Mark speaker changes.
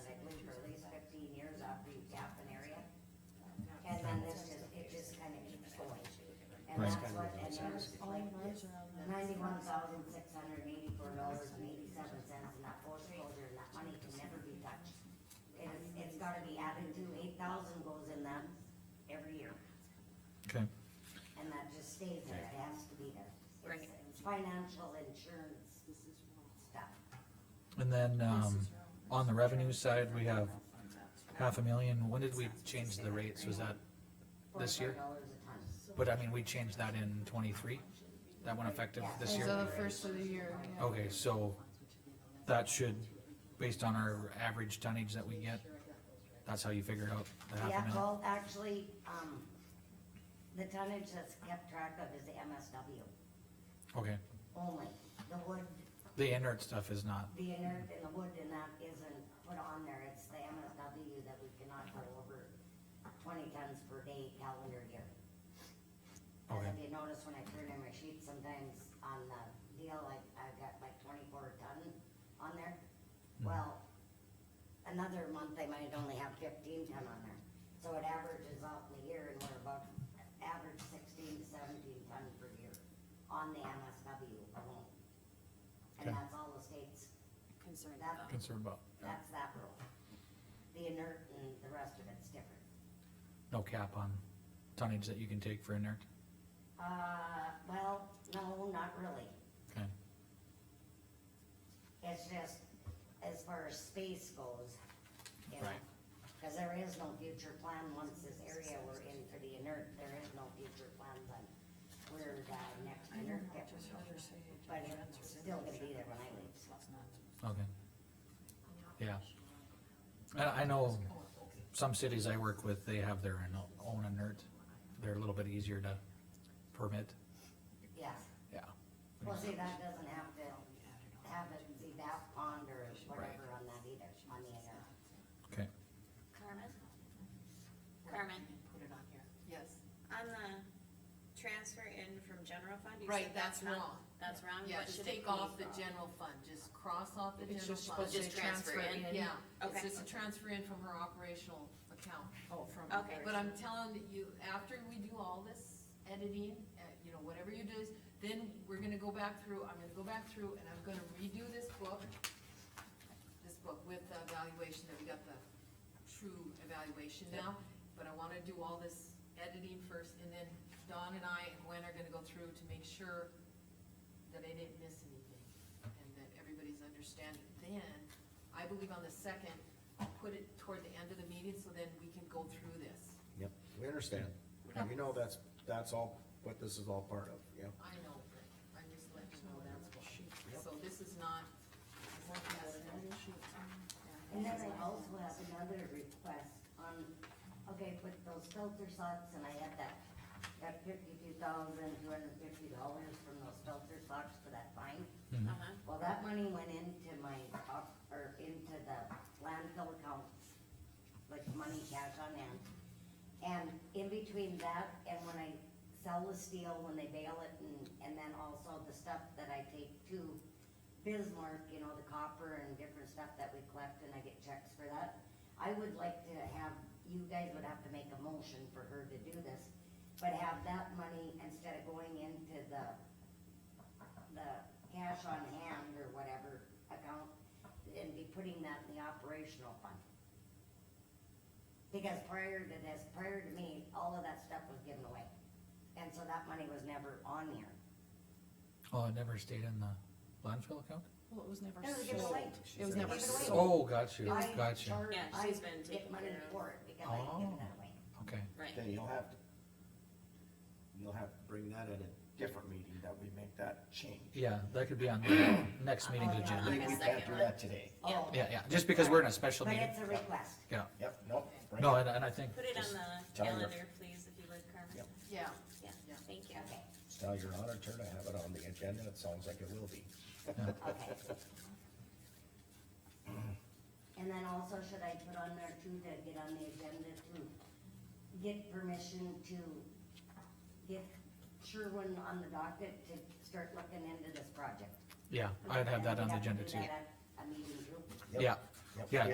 Speaker 1: ninety-one thousand, six hundred and eighty-four dollars and eighty-seven cents, and that foreclosure, and that money can never be touched. It's, it's gotta be added to, eight thousand goes in them every year,
Speaker 2: Okay,
Speaker 1: and that just stays there, it has to be there. It's-
Speaker 3: Right.
Speaker 1: It's financial insurance stuff.
Speaker 2: and then, um, on the revenue side, we have half a million, when did we change the rates, was that, This year?
Speaker 1: Forty-five dollars a ton.
Speaker 2: but I mean, we changed that in twenty-three? That went effective this
Speaker 4: As
Speaker 2: year? Oh.
Speaker 4: of the first of the year, yeah.
Speaker 2: Okay, so that should, based on our average tonnage that we get, that's how you figured out the half a
Speaker 1: Yeah,
Speaker 2: million?
Speaker 1: well, actually, um, the tonnage that's kept track of is the MSW
Speaker 2: Okay,
Speaker 1: only. The wood,
Speaker 2: the inert stuff is not,
Speaker 1: the inert and the wood and that isn't put on there, it's the MSW that we cannot go over twenty tons per day calendar year. Cause if
Speaker 2: Okay.
Speaker 1: you notice when I turn in my sheet, sometimes on the deal, like, I've got like twenty-four ton on there.
Speaker 2: Hmm.
Speaker 1: Well, another month they might only have fifteen ton on there, so it averages out in the year and we're about average sixteen to seventeen ton per year on the MSW alone. And
Speaker 2: Okay.
Speaker 1: that's all the states,
Speaker 3: Concerned
Speaker 1: that,
Speaker 2: concerned about,
Speaker 1: that's that rule. The inert and the rest of it's different.
Speaker 2: no cap on tonnage that you can take for inert?
Speaker 1: Uh, well, no, not really.
Speaker 2: Okay,
Speaker 1: It's just, as far as space goes, you know,
Speaker 2: Right.
Speaker 1: cause there is no future plan once this area we're in for the inert, there is no future plans on where the next inert pit will go. But it's still gonna be there when I leave, so.
Speaker 2: okay. Yeah. I, I know some cities I work with, they have their ino- own inert, they're a little bit easier to permit,
Speaker 1: yeah.
Speaker 2: yeah.
Speaker 1: Well, see, that doesn't have to have it, see, that pond or whatever on that either, on the inert.
Speaker 2: Okay,
Speaker 3: Carmen? Carmen,
Speaker 4: Yes.
Speaker 3: on the transfer in from general fund, you
Speaker 5: Right,
Speaker 3: said
Speaker 5: that's
Speaker 3: that's not,
Speaker 5: wrong.
Speaker 3: that's wrong,
Speaker 5: Yeah,
Speaker 3: what
Speaker 5: just
Speaker 3: should it
Speaker 5: take off
Speaker 3: be
Speaker 5: the
Speaker 3: from?
Speaker 5: general fund, just cross off the
Speaker 4: It's
Speaker 5: general
Speaker 4: just
Speaker 5: fund.
Speaker 4: supposed to
Speaker 3: Just
Speaker 4: say
Speaker 3: transfer
Speaker 4: transfer
Speaker 3: in.
Speaker 4: in. Yeah,
Speaker 3: Okay.
Speaker 5: it's just a transfer in from her operational account.
Speaker 1: Oh, from.
Speaker 3: Okay.
Speaker 5: But I'm telling that you, after we do all this editing, uh, you know, whatever you do, is- then we're gonna go back through, I'm gonna go back through and I'm gonna redo this book. This book with the evaluation, that we got the true evaluation now, but I wanna do all this editing first and then Dawn and I and Gwen are gonna go through to make sure that I didn't miss anything and that everybody's understanding. Then, I believe on the second, I'll put it toward the end of the meeting so then we can go through this.
Speaker 6: Yep, we understand. And we know that's, that's all, what this is all part of, yep.
Speaker 5: I know, but I'm just letting you know that's what. So this is not.
Speaker 1: And then I also have another request on, okay, with those filter socks, and I had that, that fifty-two thousand, two hundred and fifty dollars from those filter socks for that fine.
Speaker 3: Uh-huh.
Speaker 1: Well, that money went into my, op- or into the landfill account, like money cash on hand. And in between that and when I sell the steel, when they bail it and, and then also the stuff that I take to Bismarck, you know, the copper and different stuff that we collect and I get checks for that. I would like to have, you guys would have to make a motion for her to do this, but have that money instead of going into the the cash on hand or whatever account and be putting that in the operational fund. Because prior to this, prior to me, all of that stuff was given away. And so that money was never on here.
Speaker 2: oh, it never stayed in the landfill account?
Speaker 4: Well, it was never
Speaker 1: It was given
Speaker 4: sold.
Speaker 1: away.
Speaker 4: It was never
Speaker 1: Given away.
Speaker 4: sold.
Speaker 2: Oh, got you,
Speaker 1: I
Speaker 2: got you,
Speaker 1: charge-
Speaker 3: Yeah, she's been
Speaker 1: I Get
Speaker 3: taking
Speaker 1: money
Speaker 3: care of-
Speaker 1: for it because I didn't give
Speaker 2: Oh.
Speaker 1: that away.
Speaker 2: okay,
Speaker 3: Right,
Speaker 6: Then you'll have to, you'll have to bring that at a different meeting that we make that change.
Speaker 2: yeah, that could be on the next meeting's
Speaker 6: We
Speaker 2: agenda.
Speaker 6: we
Speaker 3: August
Speaker 6: can't
Speaker 3: second.
Speaker 6: do that today.
Speaker 3: Yeah.
Speaker 1: Oh,
Speaker 2: Yeah, yeah, just because we're in a special
Speaker 1: But
Speaker 2: meeting,
Speaker 1: it's a request.
Speaker 2: yeah,
Speaker 6: Yep, nope. bring
Speaker 2: no,
Speaker 6: it.
Speaker 2: and, and I think,
Speaker 3: put it on
Speaker 6: Just
Speaker 3: the
Speaker 6: tell her.
Speaker 3: calendar, please, if you would, Carmen,
Speaker 6: Yep.
Speaker 5: Yeah,
Speaker 3: yeah,
Speaker 5: Yeah.
Speaker 3: thank you.
Speaker 1: Okay,
Speaker 6: Tell your auditor to have it on the agenda, it sounds like it will be.
Speaker 1: okay. And then also, should I put on there too, to get on the agenda to get permission to get Sherwin on the docket to start looking into this project?
Speaker 2: yeah, I'd have that on the agenda
Speaker 1: Do
Speaker 2: too,
Speaker 1: that at A meeting too?
Speaker 6: Yep,
Speaker 2: yeah.
Speaker 6: yep.
Speaker 2: Yeah,